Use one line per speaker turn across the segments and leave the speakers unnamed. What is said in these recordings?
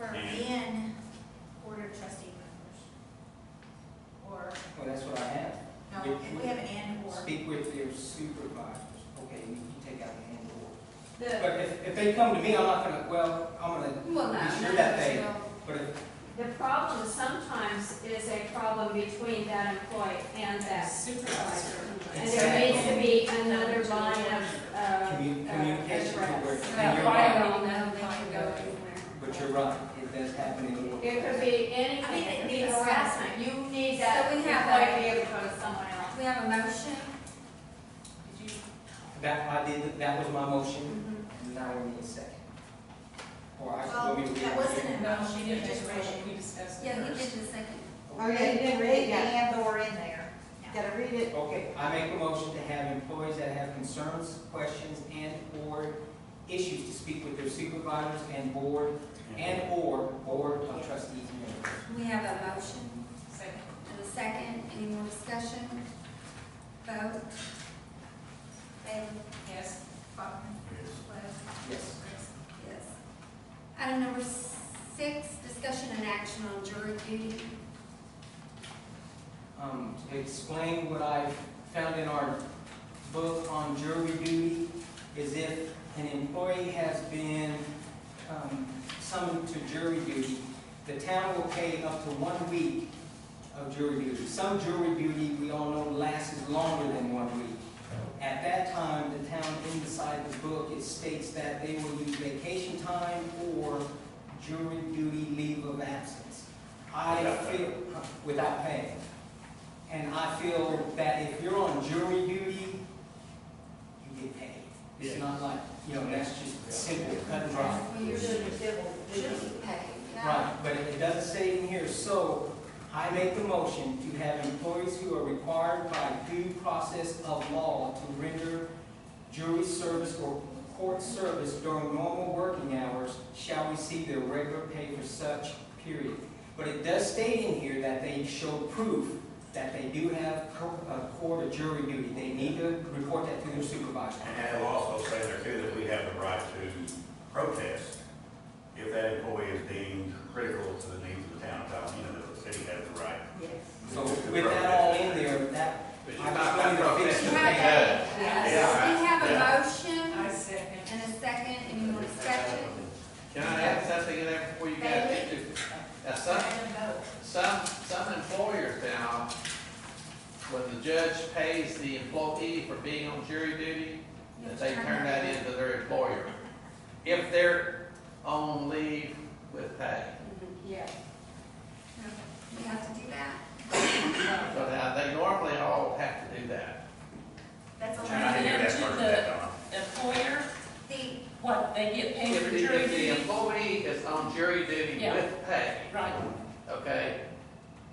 Oh,
The,
But if, if they come to me, I'm not gonna, well, I'm gonna,
well, no,
Be sure
none of
that
us
they-
will.
but if,
The problem sometimes is a problem between that employee and that supervisor. And there needs to be another line of, uh.
Commu- communication to where-
address.
and
That
you're
way
right.
we know they can go anywhere.
but you're right, it does happen in the world.
It could be
I mean,
anything, it could be
it's-
harassment, you need
So
that
we
employee
have that.
to be able to go to someone else.
We have a motion,
That, I did, that was my motion, now we need a second. Or I,
Well,
let me.
that wasn't a
No, she
motion,
didn't
you just
make a
read
motion,
it.
we discussed it
Yeah, he did
first.
the second.
Oh,
Or you didn't read and or in there.
Yeah.
Gotta read it.
Okay, I make a motion to have employees that have concerns, questions, and/or issues to speak with their supervisors and board, and/or board of trustees members.
We have a motion
Second.
and a second. Any more discussion? Vote. Bailey?
Yes.
Bachman? West?
Yes.
Yes. Item number six, discussion and action on jury duty.
Um, to explain what I found in our book on jury duty is if an employee has been, um, summoned to jury duty, the town will pay up to one week of jury duty. Some jury duty, we all know, lasts longer than one week. At that time, the town inside the book, it states that they will use vacation time or jury duty leave of absence. I feel, without pay. And I feel that if you're on jury duty, you get paid. It's not like, you know, that's just simple, cut and dry.
Well, you're doing civil duty pay. yeah?
Right, but it doesn't say in here, so I make the motion to have employees who are required by due process of law to render jury service or court service during normal working hours shall receive their regular pay for such period. But it does state in here that they show proof that they do have co- uh, court or jury duty. They need to report that to their supervisor.
And it'll also say there too that we have the right to protest if that employee is deemed critical to the needs of the town of Tallahassee, the city has the right.
So with that all in there, that,
But
I just wanted to fix
We
the
have
thing.
a-
Yeah.
We have a
I
motion
second.
and a second. Any more discussion?
Can I add something in there before you get into? Now, some, some, some employers now, when the judge pays the employee for being on jury duty, that they turn that into their employer. If they're on leave with pay.
Yeah.
We have to do that.
So now, they normally all have to do that.
That's all.
And I hear that part of that, Donna.
Employer,
The,
what, they get paid
If
for
the,
jury
if the
duty?
employee is on jury duty
Yeah.
with pay.
Right.
Okay,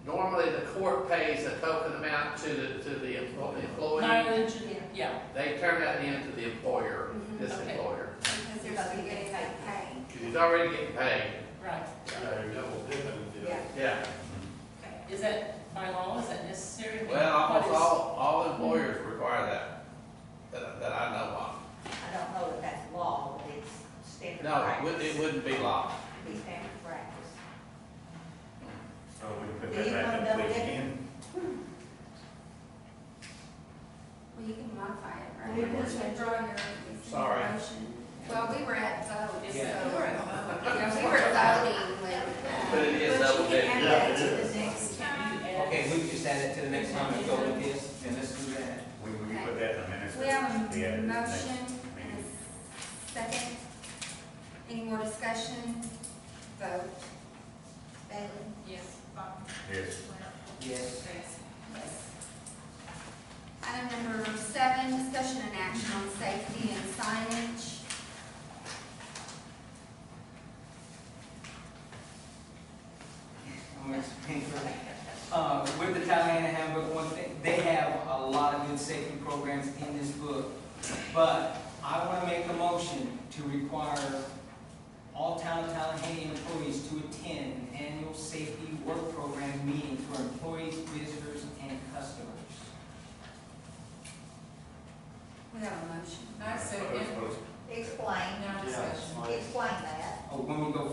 normally the court pays a token amount to the, to the emplo- the employee.
Mileage, and- yeah.
They turn that in to the employer, this
Okay.
employer,
because they're still getting that pay.
because he's already getting paid.
Right.
Yeah,
Is that by law, is that necessary?
well,
What
almost
is-
all, all employers require that, that, that I know of.
I don't know if that's law, but it's standard
No, it
practice.
wouldn't, it wouldn't be law.
It'd be standard practice.
So we put that back in place again.
Well, you can modify it, right?
We
You
can.
can draw your.
Sorry.
motion. Well, we were at vote, so.
Yeah.
We were at voting
But
when.
it is double
But you
dipping.
can add that to the next time.
Okay.
Okay, we can just add it to the next time we go with this, and let's do that.
We, we put that in the minutes.
We have
Yeah,
a
it's next.
motion and a second. Any more discussion? Vote. Bailey?
Yes.
Yes.
Yes.
Yes. Item number seven, discussion and action on safety and signage.
I'm gonna explain for that. Uh, with the Tallahassee handbook, one thing, they have a lot of good safety programs in this book. But I wanna make a motion to require all town of Tallahassee employees to attend an annual safety work program meeting for employees, visitors, and customers.
We have a motion.
I second.
Explain,
No discussion.
explain that.
Oh, when we go